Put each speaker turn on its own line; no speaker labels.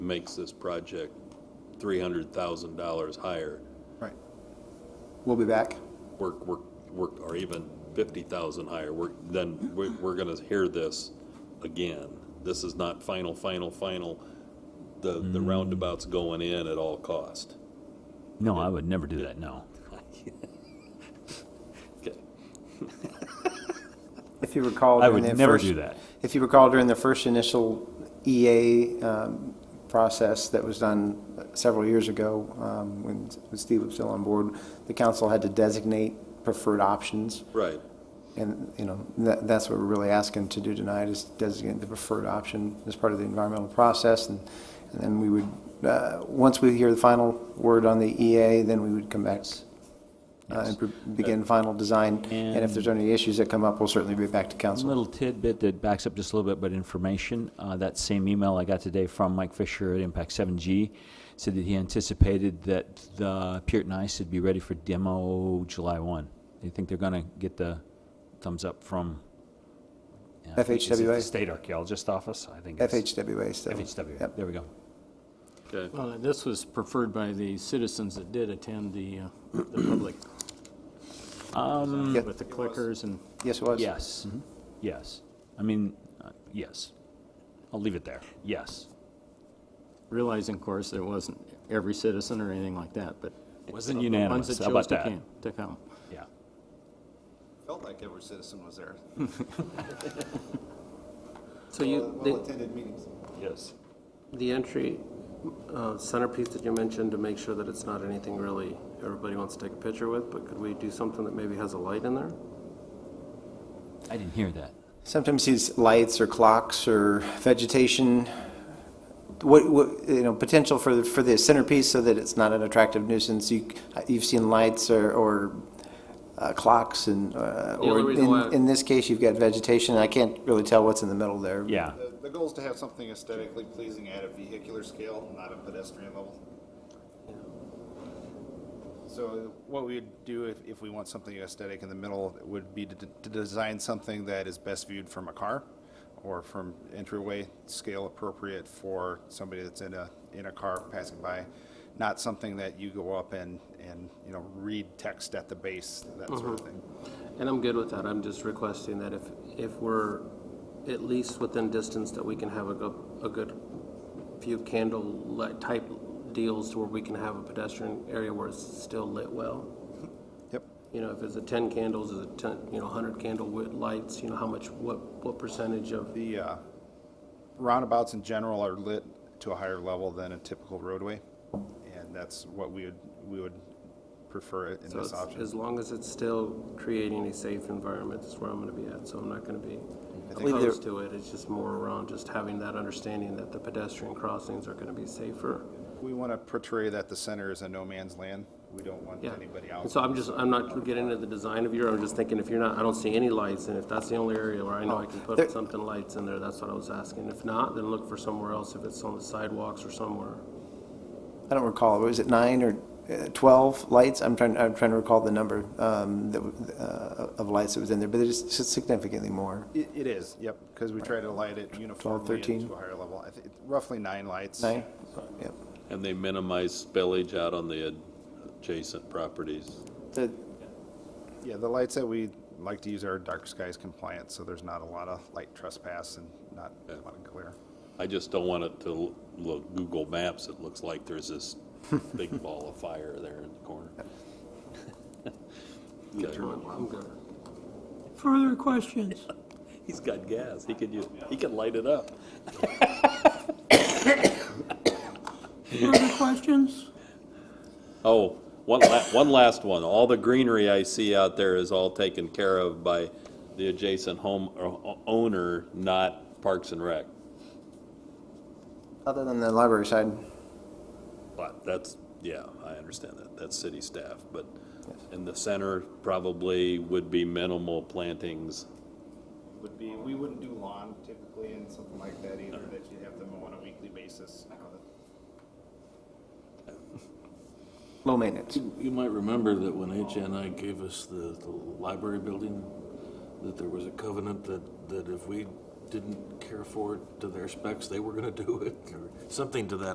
makes this project three hundred thousand dollars higher,
Right. We'll be back.
we're, we're, we're, or even fifty thousand higher, we're, then we're, we're gonna hear this again. This is not final, final, final, the, the roundabout's going in at all cost.
No, I would never do that, no.
Okay.
If you recall.
I
during
would
the
never
first-
do that.
If you recall during the first initial EA um, process that was done several years ago, um, when when Steve was still on board, the council had to designate preferred options.
Right,
And, you know, that, that's what we're really asking to do tonight, is designate the preferred option as part of the environmental process, and, and then we would, uh, once we hear the final word on the EA, then we would come back uh, and pre- begin final design, and if there's any issues that come up, we'll certainly be back to
One
council.
little tidbit that backs up just a little bit, but information, uh, that same email I got today from Mike Fisher at Impact Seven G said that he anticipated that the Pearton Ice would be ready for demo July one. Do you think they're gonna get the thumbs up from? yeah, I think it's
FHWA?
the State Archaeologist Office, I think it's.
FHWA still.
FHWA,
Yep.
there we go.
okay,
Well, and this was preferred by the citizens that did attend the, uh, the public. Um. With the clickers and,
Yes, it was?
Yes,
Mm-hmm.
yes. I mean, uh, yes. I'll leave it there, yes.
realizing, of course, there wasn't every citizen or anything like that, but.
Wasn't
the
unanimous,
Ones that
how about
chose to
that?
came, to come.
Yeah.
Felt like every citizen was there.
So you, the-
attended meetings.
Yes.
The entry uh, centerpiece that you mentioned to make sure that it's not anything really everybody wants to take a picture with, but could we do something that maybe has a light in there?
I didn't hear that.
Sometimes these lights or clocks or vegetation, what, what, you know, potential for, the- for the centerpiece so that it's not an attractive nuisance. You, you've seen lights or, or uh, clocks and, uh,
The
or
only reason why-
in, in this case, you've got vegetation. I can't really tell what's in the middle there.
Yeah.
The, the goal is to have something aesthetically pleasing at a vehicular scale, not a pedestrian level. So what we'd do if, if we want something aesthetic in the middle would be to, d- to design something that is best viewed from a car or from entryway, scale appropriate for somebody that's in a, in a car passing by. Not something that you go up and, and, you know, read text at the base, that sort of thing.
And I'm good with that. I'm just requesting that if, if we're at least within distance, that we can have a good, a good few candle light type deals to where we can have a pedestrian area where it's still lit well.
Yep.
You know, if it's a ten candles, is it ten, you know, hundred candle wi- lights, you know, how much, what, what percentage of
The uh, roundabouts in general are lit to a higher level than a typical roadway, and that's what we would, we would prefer it in
So
this
it's- as
option.
long as it's still creating a safe environment, that's where I'm gonna be at, so I'm not gonna be
think there-
opposed to it. It's just more around just having that understanding that the pedestrian crossings are gonna be safer.
We want to portray that the center is a no man's land. We don't want
Yeah.
anybody
And
out.
So I'm just, I'm not getting into the design of your, I'm just thinking if you're not, I don't see any lights, and if that's the only area where I
Oh,
know I can
there-
put something lights in there, that's what I was asking. If not, then look for somewhere else, if it's on the sidewalks or somewhere.
I don't recall, was it nine or uh, 12 lights? I'm trying, I'm trying to recall the number um, that w- uh, of lights that was in there, but it is significantly more.
It, it is, yep, because we try to light it uniformly
13.
and to a higher level. I think it's roughly nine lights.
Nine? Yep.
and they minimize spillage out on the adjacent properties.
The-
Yeah, the lights that we like to use are dark skies compliant, so there's not a lot of light trespass and not a lot of glare.
I just don't want it to l- look, Google Maps, it looks like there's this big ball of fire there in the corner. Okay.
I'm good.
Further questions?
He's got gas, he could use, he could light it up.
Further questions?
Oh, one la- one last one, all the greenery I see out there is all taken care of by the adjacent home, or owner, not Parks and Rec.
Other than the library side,
But that's, yeah, I understand that, that's city staff, but in the center probably would be minimal plantings.
would be, we wouldn't do lawn typically and something like that either, that you'd have them on a weekly basis.
low maintenance.
You might remember that when HNI gave us the, the library building, that there was a covenant that, that if we didn't care for it to their specs, they were gonna do it, or something to that